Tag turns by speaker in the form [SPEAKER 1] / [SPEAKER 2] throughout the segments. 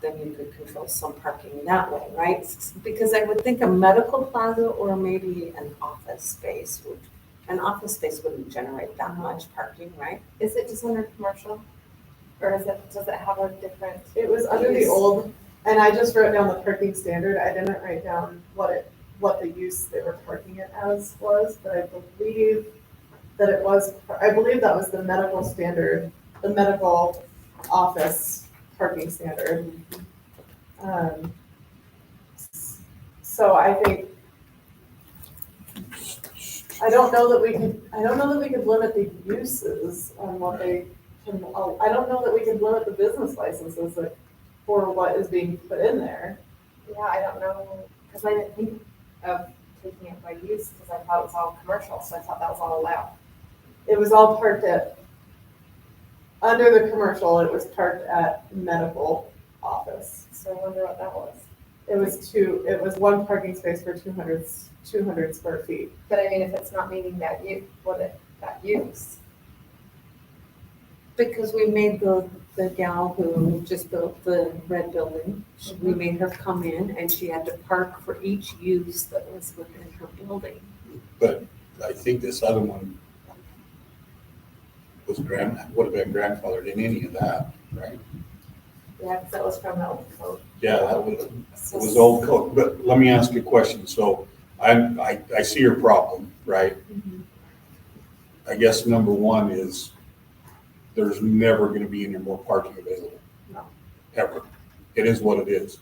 [SPEAKER 1] then you could control some parking that way, right? S- Because I would think a medical plaza or maybe an office space would, an office space wouldn't generate that much parking, right?
[SPEAKER 2] Is it just under commercial? Or is it, does it have a different?
[SPEAKER 3] It was under the
[SPEAKER 2] Use.
[SPEAKER 3] old, and I just wrote down the parking standard. I didn't write down what it, what the use they were parking it as was, but I believe that it was, I believe that was the medical standard, the medical office parking standard. Um, s- So I think, I don't know that we could, I don't know that we could limit the uses on what they can, oh, I don't know that we could limit the business licenses that- for what is being put in there.
[SPEAKER 2] Yeah, I don't know, because I didn't think of taking it by use, because I thought it was all commercial, so I thought that was all allowed.
[SPEAKER 3] It was all parked at, under the commercial, it was parked at medical office.
[SPEAKER 2] So I wonder what that was.
[SPEAKER 3] It was two, it was one parking space for 200 200 square feet.
[SPEAKER 2] But I mean, if it's not meeting that use, what it, that use,
[SPEAKER 1] Because we made the, the gal who just built the red building, she- we
[SPEAKER 4] Mm-hmm.
[SPEAKER 1] made her come in and she had to park for each use that was within her building.
[SPEAKER 4] I think this other one was grand, would have been grandfathered in any of that, right?
[SPEAKER 2] yeah, because that was from the old code.
[SPEAKER 4] Yeah, that was, it
[SPEAKER 2] So-
[SPEAKER 4] was old code, but let me ask you a question, so I, I, I see your problem, right? I guess number one is, there's never gonna be any more parking available.
[SPEAKER 3] No.
[SPEAKER 4] Ever, it is what it is.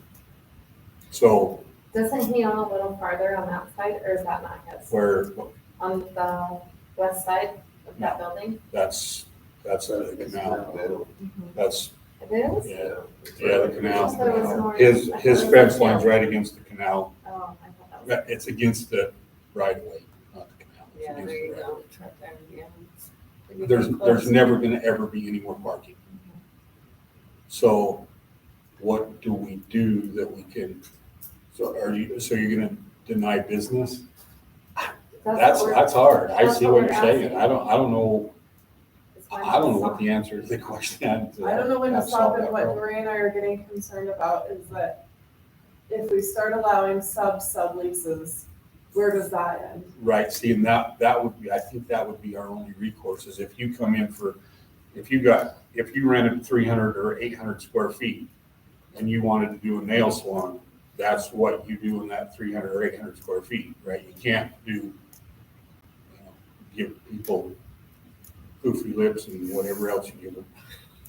[SPEAKER 4] So,
[SPEAKER 2] Doesn't he own a little farther on that side, or is that not his?
[SPEAKER 4] where,
[SPEAKER 2] On the west side of that building?
[SPEAKER 4] that's, that's the canal, that's,
[SPEAKER 2] It is?
[SPEAKER 4] yeah, yeah, the
[SPEAKER 2] I
[SPEAKER 4] canal.
[SPEAKER 2] thought it was more-
[SPEAKER 4] His,
[SPEAKER 2] I thought
[SPEAKER 4] his
[SPEAKER 2] it was
[SPEAKER 4] fence
[SPEAKER 2] uphill.
[SPEAKER 4] line's right against the canal.
[SPEAKER 2] Oh, I thought that was.
[SPEAKER 4] It's against the right of way, not the canal. It's
[SPEAKER 1] Yeah, there
[SPEAKER 4] against the
[SPEAKER 1] you
[SPEAKER 4] right
[SPEAKER 1] go. Truck there, yeah.
[SPEAKER 4] of way. There's, there's never gonna ever be any more parking. So what do we do that we can, so are you, so you're gonna deny business?
[SPEAKER 2] what
[SPEAKER 4] That's,
[SPEAKER 2] we're-
[SPEAKER 4] that's hard. I
[SPEAKER 2] that's
[SPEAKER 4] see
[SPEAKER 2] what
[SPEAKER 4] what you're
[SPEAKER 2] we're
[SPEAKER 4] saying.
[SPEAKER 2] asking.
[SPEAKER 4] I don't, I don't know,
[SPEAKER 2] it's my
[SPEAKER 4] I don't know what
[SPEAKER 2] design.
[SPEAKER 4] the answer to the question. I
[SPEAKER 3] I don't know when to
[SPEAKER 4] I've
[SPEAKER 3] stop
[SPEAKER 4] solved
[SPEAKER 3] it.
[SPEAKER 4] that
[SPEAKER 3] What
[SPEAKER 4] problem.
[SPEAKER 3] Maria and I are getting concerned about is that if we start allowing sub subleases, where does that end?
[SPEAKER 4] Right, see, and that, that would be, I think that would be our only recourse is if you come in for, if you got, if you rented three hundred or eight hundred square feet and you wanted to do a nail salon, that's what you do in that three hundred or eight hundred square feet, right? You can't do, you know, give people poofy lips and whatever else you give them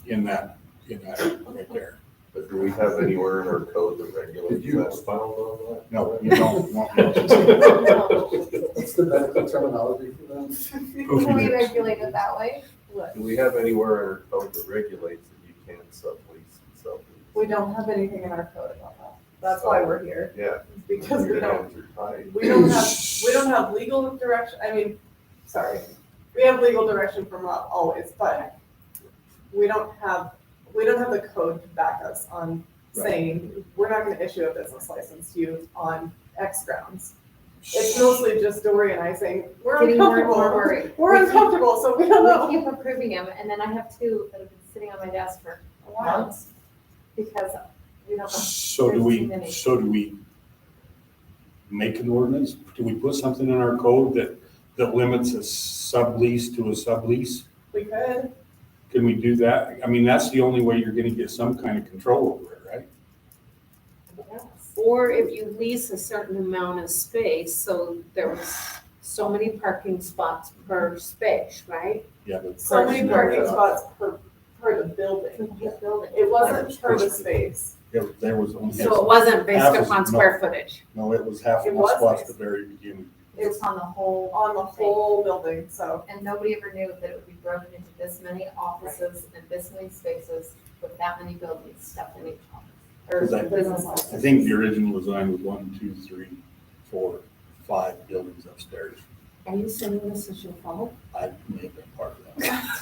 [SPEAKER 4] in that, in that right there.
[SPEAKER 5] But do we have anywhere in our code that regulates
[SPEAKER 6] Did you
[SPEAKER 5] that?
[SPEAKER 6] expound on
[SPEAKER 4] No, you don't want
[SPEAKER 6] that? What's the medical terminology for that?
[SPEAKER 2] Can we
[SPEAKER 4] poofy lips.
[SPEAKER 2] regulate it that way?
[SPEAKER 3] What?
[SPEAKER 5] Do we have anywhere in our code that regulates that you can sublease and sublease?
[SPEAKER 3] We don't have anything in our code about that. That's why we're here,
[SPEAKER 5] Yeah.
[SPEAKER 3] because we
[SPEAKER 5] Your
[SPEAKER 3] don't
[SPEAKER 5] hands are tied.
[SPEAKER 3] We don't have, we don't have legal direction, I mean, sorry, we have legal direction from Rob always, but we don't have, we don't have the code to back us on
[SPEAKER 4] Right.
[SPEAKER 3] saying, we're not gonna issue a business license to you on X grounds. It's mostly just Dory and I saying, we're
[SPEAKER 2] Getting more and
[SPEAKER 3] uncomfortable,
[SPEAKER 2] more
[SPEAKER 3] we're
[SPEAKER 2] worried. We keep-
[SPEAKER 3] uncomfortable, so we don't know.
[SPEAKER 2] We keep approving them, and then I have two that have been sitting on my desk for months because we don't know.
[SPEAKER 4] So do
[SPEAKER 2] There's too
[SPEAKER 4] we,
[SPEAKER 2] many.
[SPEAKER 4] so do we make an ordinance? Do we put something in our code that, that limits a sublease to a sublease?
[SPEAKER 3] We could,
[SPEAKER 4] Can we do that? I mean, that's the only way you're gonna get some kind of control over it, right?
[SPEAKER 2] Yes.
[SPEAKER 1] Or if you lease a certain amount of space, so there was so many parking spots per space, right?
[SPEAKER 4] Yeah, but
[SPEAKER 3] so many
[SPEAKER 4] Correct.
[SPEAKER 3] parking
[SPEAKER 2] uh,
[SPEAKER 4] Yeah.
[SPEAKER 3] spots per, per the building. It wasn't per the space,
[SPEAKER 4] there- there was only,
[SPEAKER 1] So it wasn't based
[SPEAKER 4] Half is
[SPEAKER 1] upon
[SPEAKER 4] not-
[SPEAKER 1] square footage.
[SPEAKER 4] no, it was half
[SPEAKER 3] It
[SPEAKER 4] of the
[SPEAKER 3] was
[SPEAKER 4] spots at
[SPEAKER 3] this.
[SPEAKER 4] the very beginning.
[SPEAKER 2] It's on the whole,
[SPEAKER 3] on the whole building, so.
[SPEAKER 2] and nobody ever knew that it would be broken into this many offices and this many spaces with that many buildings stuffed in each office. Or
[SPEAKER 4] Is that-
[SPEAKER 2] business
[SPEAKER 4] I
[SPEAKER 2] office.
[SPEAKER 4] think the original design was one, two, three, four, five buildings upstairs.
[SPEAKER 1] Are you saying this is your fault?
[SPEAKER 4] I may have been part of that.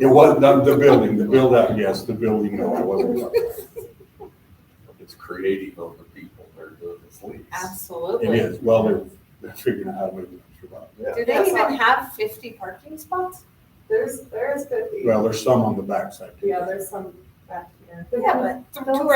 [SPEAKER 4] It wasn't the the building, the build out, yes, the building, no, I wasn't part of that.
[SPEAKER 5] It's creative of the people that are doing this lease.
[SPEAKER 1] Absolutely.
[SPEAKER 4] It is, well, they're, they're figuring out how to make it survive.
[SPEAKER 5] Yeah.
[SPEAKER 1] Do they
[SPEAKER 3] That's
[SPEAKER 1] even
[SPEAKER 3] not-
[SPEAKER 1] have fifty parking spots?
[SPEAKER 3] There's, there is fifty.
[SPEAKER 4] Well, there's some on the backside. too.
[SPEAKER 3] Yeah, there's some back here.
[SPEAKER 1] Yeah, but two
[SPEAKER 2] those-
[SPEAKER 1] or